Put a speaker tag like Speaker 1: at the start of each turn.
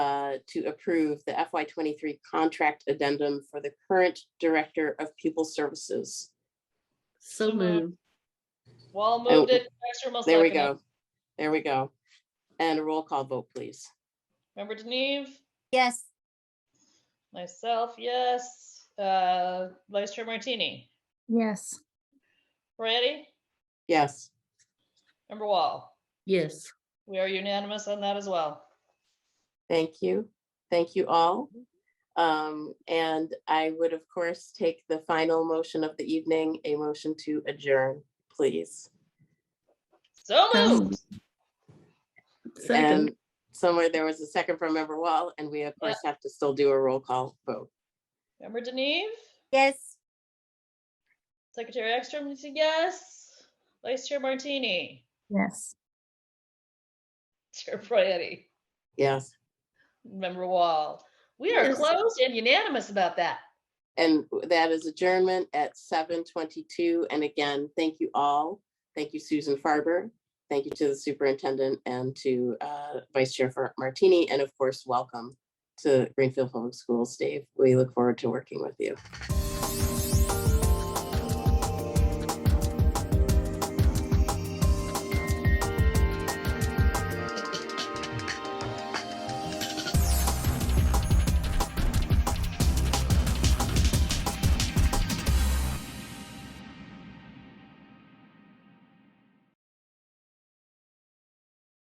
Speaker 1: uh, to approve the FY twenty-three contract addendum for the current Director of Pupil Services.
Speaker 2: So moved.
Speaker 3: Wall
Speaker 1: Oh,
Speaker 3: moved it. Extra must
Speaker 1: There we
Speaker 3: second it.
Speaker 1: go. There we go. And a roll call vote, please.
Speaker 3: Member Deneve,
Speaker 4: Yes.
Speaker 3: myself, yes. Uh, Vice Chair Martini,
Speaker 4: Yes.
Speaker 3: Moretti,
Speaker 1: Yes.
Speaker 3: Member Wall.
Speaker 2: Yes.
Speaker 3: We are unanimous on that as well.
Speaker 1: Thank you. Thank you all. Um, and I would, of course, take the final motion of the evening, a motion to adjourn, please.
Speaker 3: So
Speaker 2: So
Speaker 3: moved.
Speaker 2: Second.
Speaker 1: And somewhere there was a second from Member Wall, and we of course have to still do a roll call vote.
Speaker 3: Member Deneve,
Speaker 4: Yes.
Speaker 3: Secretary Ekstrom, said yes. Vice Chair Martini,
Speaker 4: Yes.
Speaker 3: Chair Moretti,
Speaker 1: Yes,
Speaker 3: Member Wall. We are
Speaker 2: Yes.
Speaker 3: closed and unanimous about that.
Speaker 1: and that is adjournment at seven twenty-two. And again, thank you all. Thank you, Susan Farber. Thank you to the superintendent and to uh, Vice Chair Fer- Martini, and of course, welcome to Greenfield Public Schools, Dave. We look forward to working with you.